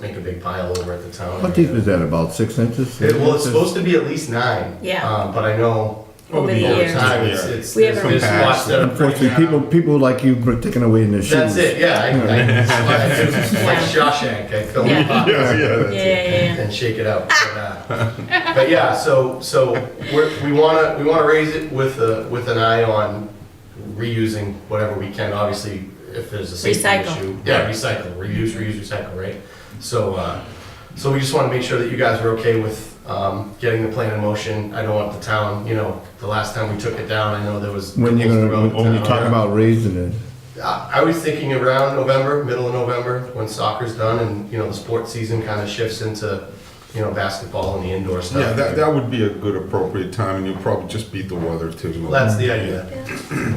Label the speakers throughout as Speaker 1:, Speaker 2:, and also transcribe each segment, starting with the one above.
Speaker 1: make a big pile over at the town.
Speaker 2: What deep is that, about six inches?
Speaker 1: It- well, it's supposed to be at least nine.
Speaker 3: Yeah.
Speaker 1: Um, but I know
Speaker 3: Over the
Speaker 1: over
Speaker 3: years.
Speaker 1: time it's, it's
Speaker 3: We
Speaker 1: there's,
Speaker 3: have a-
Speaker 1: there's lots that are pretty
Speaker 2: Unfortunately, people,
Speaker 1: narrow.
Speaker 2: people like you were taking away in their shoes.
Speaker 1: That's it. Yeah, I, I, I it's like Shawshank. I fill
Speaker 3: Yeah.
Speaker 1: the pot
Speaker 3: Yeah, yeah, yeah.
Speaker 1: and shake it out. But, uh, but yeah, so so we're, we want to we want to raise it with a with an eye on reusing whatever we can. Obviously, if there's a safety
Speaker 3: Recycle.
Speaker 1: issue, yeah, recycle, reuse, reuse, recycle, right? So uh, so we just want to make sure that you guys are okay with. Um, getting the plan in motion. I don't want the town, you know, the last time we took it down, I know there was.
Speaker 2: When you're
Speaker 1: throughout
Speaker 2: gonna,
Speaker 1: the
Speaker 2: when you
Speaker 1: town.
Speaker 2: talk about raising it,
Speaker 1: I I was thinking around November, middle of November, when soccer's done and, you know, the sports season kind of shifts into, you know, basketball and the indoor stuff.
Speaker 4: Yeah, that, that would be a good appropriate time, and you'll probably just beat the weather too.
Speaker 1: That's the idea.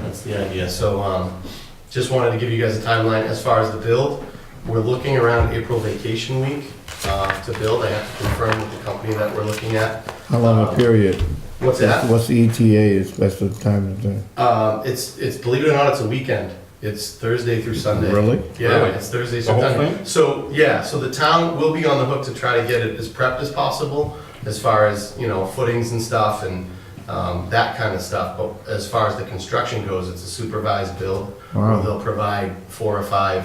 Speaker 1: That's the idea. So, um, just wanted to give you guys a timeline as far as the build. We're looking around April vacation week, uh, to build. I have to confirm with the company that we're looking at.
Speaker 2: how long a
Speaker 1: Uh,
Speaker 2: period?
Speaker 1: What's that?
Speaker 2: That's- What's the ETA, is that's the time of the,
Speaker 1: Um, it's it's believe it or not, it's a weekend. It's Thursday through Sunday.
Speaker 2: Really?
Speaker 1: Yeah,
Speaker 4: Really?
Speaker 1: it's Thursday
Speaker 4: The
Speaker 1: through
Speaker 4: whole
Speaker 1: Sunday.
Speaker 4: thing?
Speaker 1: So yeah, so the town will be on the hook to try to get it as prepped as possible, as far as you know footings and stuff and um, that kind of stuff. But as far as the construction goes, it's a supervised build
Speaker 2: Wow.
Speaker 1: where they'll provide four or five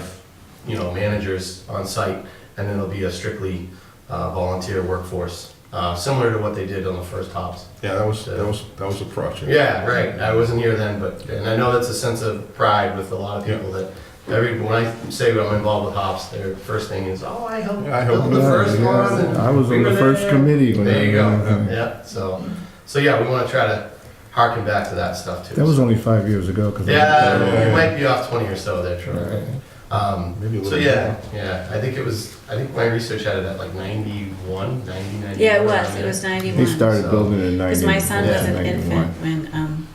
Speaker 1: you know managers on site, and then it'll be a strictly uh, volunteer workforce, uh, similar to what they did on the first hops.
Speaker 4: Yeah, that was, that was, that was a project.
Speaker 1: Yeah, right. I wasn't here then, but, and I know that's a sense of pride with a lot of people that, every, when I say I'm involved with hops, their first thing is, oh, I helped
Speaker 4: Yeah, I helped
Speaker 1: build the
Speaker 4: build
Speaker 1: first
Speaker 2: Yeah,
Speaker 1: one. and
Speaker 2: I was
Speaker 1: we
Speaker 2: on the
Speaker 1: were
Speaker 2: first
Speaker 1: there."
Speaker 2: committee when.
Speaker 1: There you go.
Speaker 2: I-
Speaker 1: Yeah, so, so yeah, we wanna try to harken back to that stuff too.
Speaker 2: That was only five years ago, cause. I-
Speaker 1: Yeah, we might be off twenty or so there, Troy. Um,
Speaker 4: Maybe a little
Speaker 1: so yeah, yeah, I think it was, I think my research had it at like 91, 90, 91.
Speaker 3: Yeah, it was, it
Speaker 1: around
Speaker 3: was
Speaker 2: They
Speaker 3: ninety-one.
Speaker 2: started
Speaker 1: So-
Speaker 2: building in ninety.
Speaker 3: Because my son was an
Speaker 2: 91.
Speaker 3: infant when, um,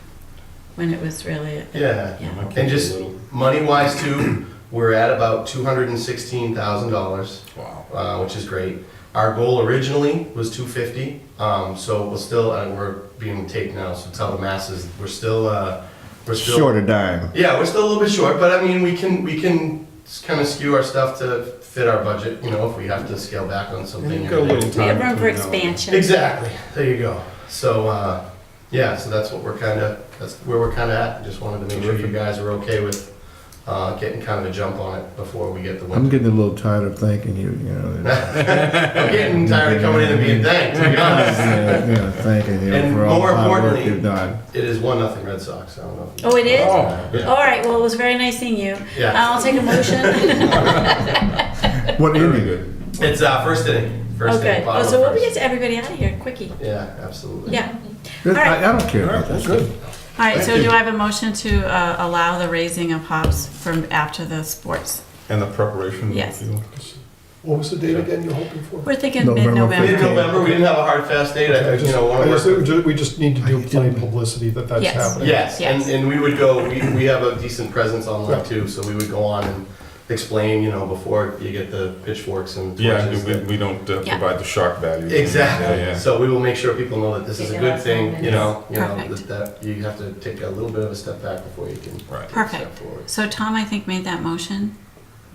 Speaker 3: when it was really.
Speaker 1: there. Yeah.
Speaker 3: Yeah.
Speaker 1: And just- Money wise too, we're at about two hundred and sixteen thousand dollars,
Speaker 4: Wow.
Speaker 1: uh, which is great. Our goal originally was two fifty, um, so we're still, uh, we're being taped now, so tell the masses, we're still, uh, we're still.
Speaker 2: Short a dime.
Speaker 1: Yeah, we're still a little bit short, but I mean, we can, we can kind of skew our stuff to fit our budget, you know, if we have to scale back on something.
Speaker 4: You've got a little
Speaker 3: We have
Speaker 4: time.
Speaker 3: room for
Speaker 4: between now and-
Speaker 3: expansion.
Speaker 1: Exactly, there you go. So, uh, yeah, so that's what we're kind of, that's where we're kind of at. Just wanted to make sure you guys are okay with uh, getting kind of a jump on it before we get the
Speaker 2: I'm
Speaker 1: winter.
Speaker 2: getting a little tired of thanking you, you know.
Speaker 1: I'm getting tired of coming in and being thanked, to be honest.
Speaker 2: Yeah, yeah, Thanking you
Speaker 1: And
Speaker 2: for all
Speaker 1: more
Speaker 2: the hard work
Speaker 1: importantly-
Speaker 2: you've done.
Speaker 1: It is one nothing Red Sox, I don't know. if you-
Speaker 3: Oh, Um, it is? All
Speaker 4: Oh, yeah.
Speaker 3: right, well, it was very nice seeing you.
Speaker 1: Yeah,
Speaker 3: I'll take a motion.
Speaker 2: What
Speaker 4: Very
Speaker 2: ended it?
Speaker 4: good.
Speaker 1: it's uh, first inning,
Speaker 3: Oh,
Speaker 1: first
Speaker 3: good.
Speaker 1: inning, bottom
Speaker 3: Oh,
Speaker 1: of
Speaker 3: so we'll get
Speaker 1: first.
Speaker 3: to everybody out of here, quickie.
Speaker 1: Yeah, absolutely.
Speaker 3: Yeah.
Speaker 2: I,
Speaker 3: All right.
Speaker 2: I don't care
Speaker 4: All
Speaker 2: about
Speaker 4: right,
Speaker 2: that.
Speaker 4: well, good.
Speaker 3: All right, so
Speaker 4: Thank
Speaker 3: do
Speaker 4: you.
Speaker 3: I have a motion to uh, allow the raising of hops from after the sports?
Speaker 4: And the preparation.
Speaker 3: Yes.
Speaker 4: you know,
Speaker 5: What was the date again you're hoping for?
Speaker 3: We're thinking
Speaker 2: November
Speaker 3: mid-November.
Speaker 2: fifteenth.
Speaker 1: Mid-November, we didn't have a hard fast date, I
Speaker 5: I
Speaker 1: think, you
Speaker 5: just-
Speaker 1: know, one
Speaker 5: I
Speaker 1: of our.
Speaker 5: just- we ju- We just need to do plain publicity that that's
Speaker 3: Yes.
Speaker 5: happening.
Speaker 1: Yes, and,
Speaker 3: Yes.
Speaker 1: and we would go, we, we have a decent presence online
Speaker 5: Yeah.
Speaker 1: too, so we would go on and explain, you know, before you get the pitchforks and
Speaker 4: Yeah,
Speaker 1: torches.
Speaker 4: we,
Speaker 1: that-
Speaker 4: we don't uh,
Speaker 3: Yeah.
Speaker 4: provide the shock value. Yeah,
Speaker 1: Exactly,
Speaker 4: yeah.
Speaker 1: so we will make sure people know that this is a
Speaker 6: Get
Speaker 1: good
Speaker 6: out
Speaker 1: thing,
Speaker 6: there.
Speaker 1: you know, you know,
Speaker 3: Perfect.
Speaker 1: that, that you have to take a little bit of a step back before you can take
Speaker 4: Right.
Speaker 1: a step
Speaker 3: Perfect.
Speaker 1: forward.
Speaker 3: So Tom, I think, made that motion.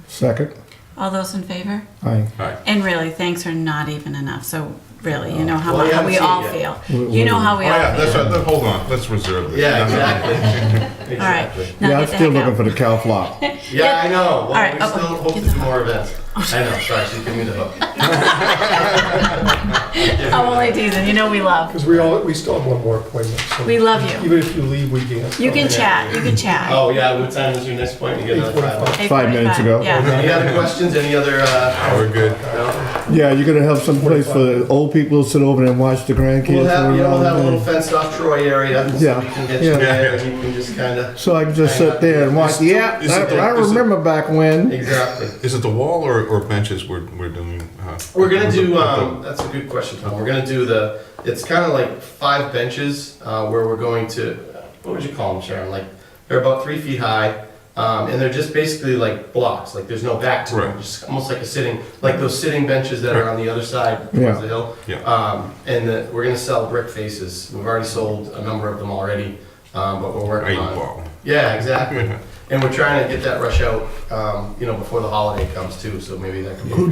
Speaker 2: Second,
Speaker 3: All those in favor?
Speaker 2: I,
Speaker 3: And really, thanks are not even enough, so really, you know how
Speaker 1: Well,
Speaker 3: mu-
Speaker 1: you
Speaker 3: how we
Speaker 1: haven't
Speaker 3: all
Speaker 1: seen it
Speaker 3: feel.
Speaker 2: We-
Speaker 3: You know how
Speaker 4: Oh,
Speaker 3: we
Speaker 4: yeah,
Speaker 3: all
Speaker 4: that's
Speaker 3: feel.
Speaker 4: right, Then hold on, let's reserve this.
Speaker 1: Yeah,
Speaker 4: No, no, no.
Speaker 1: exactly,
Speaker 3: All right.
Speaker 1: exactly.
Speaker 3: Now
Speaker 2: yeah, I'm
Speaker 3: get the
Speaker 2: still
Speaker 3: heck
Speaker 2: looking
Speaker 3: out.
Speaker 2: for the cow flop.
Speaker 1: Yeah, I know, well,
Speaker 3: right,
Speaker 1: we
Speaker 3: oh,
Speaker 1: still hope to
Speaker 3: get the
Speaker 1: do more events. I know, sorry, she's giving me the hook.
Speaker 3: I'm only teasing, you know we love.
Speaker 5: Because we all, we still have one more appointment, so.
Speaker 3: We love you.
Speaker 5: Even if you leave, we can't.
Speaker 3: You can chat, you can chat.
Speaker 1: Oh, yeah, what time is your next point? You get another five.
Speaker 5: 8:45.
Speaker 3: Eight
Speaker 2: Five minutes ago.
Speaker 3: forty-five, Yeah.
Speaker 1: Any other questions, any other, uh,
Speaker 4: We're good.
Speaker 1: no?
Speaker 2: Yeah, you're gonna have some place for the old people to sit over there and watch the grandkids.
Speaker 1: We'll have,
Speaker 2: run
Speaker 1: yeah, we'll
Speaker 2: around
Speaker 1: have a
Speaker 2: and-
Speaker 1: little fenced off Troy area, so we
Speaker 2: Yeah,
Speaker 1: can get
Speaker 2: yeah.
Speaker 1: you there, and you can just kinda,
Speaker 2: So I can just sit there and watch.
Speaker 4: Is it-
Speaker 2: Yeah,
Speaker 4: is
Speaker 2: I,
Speaker 4: it-
Speaker 2: I
Speaker 4: is it-
Speaker 2: remember back when.
Speaker 1: exactly.
Speaker 4: Is it the wall or, or benches we're, we're doing? uh,
Speaker 1: We're gonna
Speaker 4: with the-
Speaker 1: do,
Speaker 4: with the-
Speaker 1: um, that's a good question, Tom, we're gonna do the, it's kinda like five benches, uh, where we're going to, what would you call them, Sharon, like, they're about three feet high, um, and they're just basically like blocks, like there's no back to them,
Speaker 4: Right.
Speaker 1: just almost like a sitting, like those sitting benches that are on the other side
Speaker 2: Yeah.
Speaker 1: of the hill.
Speaker 4: Yeah.
Speaker 1: Um, and the, we're gonna sell brick faces, we've already sold a number of them already, um, but we're
Speaker 4: Eight
Speaker 1: working on.
Speaker 4: ball.
Speaker 1: Yeah, exactly. And we're trying to get that rush out, um, you know, before the holiday comes too, so maybe that could be.
Speaker 2: Who